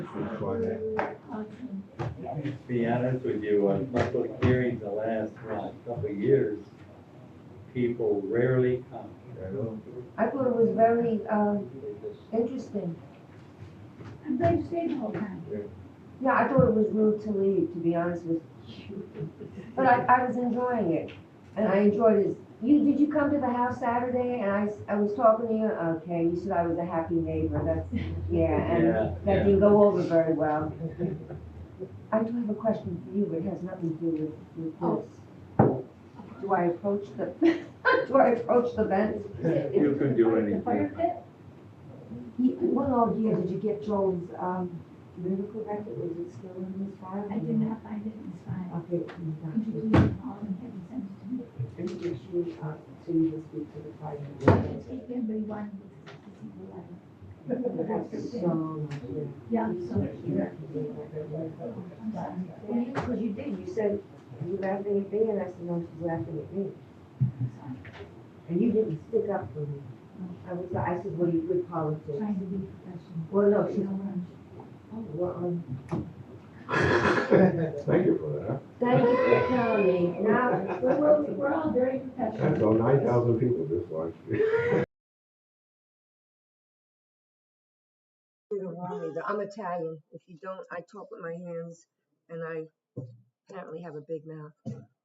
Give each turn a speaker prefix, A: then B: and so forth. A: To Be honest with you, uh, on public hearings the last, well, couple of years, people rarely come.
B: I thought it was very, um, interesting.
C: I'm glad you stayed the whole time.
B: Yeah, I thought it was rude to leave, to be honest with you. But I, I was enjoying it, and I enjoyed it. You, did you come to the house Saturday, and I, s- I was talking to you, okay, you said I was a happy neighbor, that's, yeah, and
A: Yeah,
B: that
A: yeah.
B: didn't go over very well. I do have a question for you, but it has nothing to do with, with this. Do I approach the, do I approach the vent?
A: You can do
C: The fire
A: anything.
C: pit?
D: Ye- What all year did you get Joel's, um, medical record, was it still in his file?
C: I did not find it in his file.
D: Okay, you got
C: Could you
D: you.
C: please call him and have him send it to me?
D: And did you, uh, so you will speak to the
C: Let's
D: private.
C: take everybody one to see the letter.
D: That's so much, yeah.
C: Yeah, I'm so
D: You
C: cute.
D: have to be like that, like that.
C: I'm sorry.
B: Because you did, you said, you laughing at me, and I said, no, she's laughing at me.
C: I'm sorry.
B: And you didn't stick up for me. I was, I said, what are you good politics?
C: Trying to be professional.
B: Well, no,
C: You
B: she's,
C: know what I'm-
B: oh, well, um,
E: Thank you for
B: thank you for coming. Now,
C: We're, we're, we're all very
E: that. That's
C: professional.
E: about nine thousand people this watched.
B: I'm Italian. If you don't, I talk with my hands, and I apparently have a big mouth.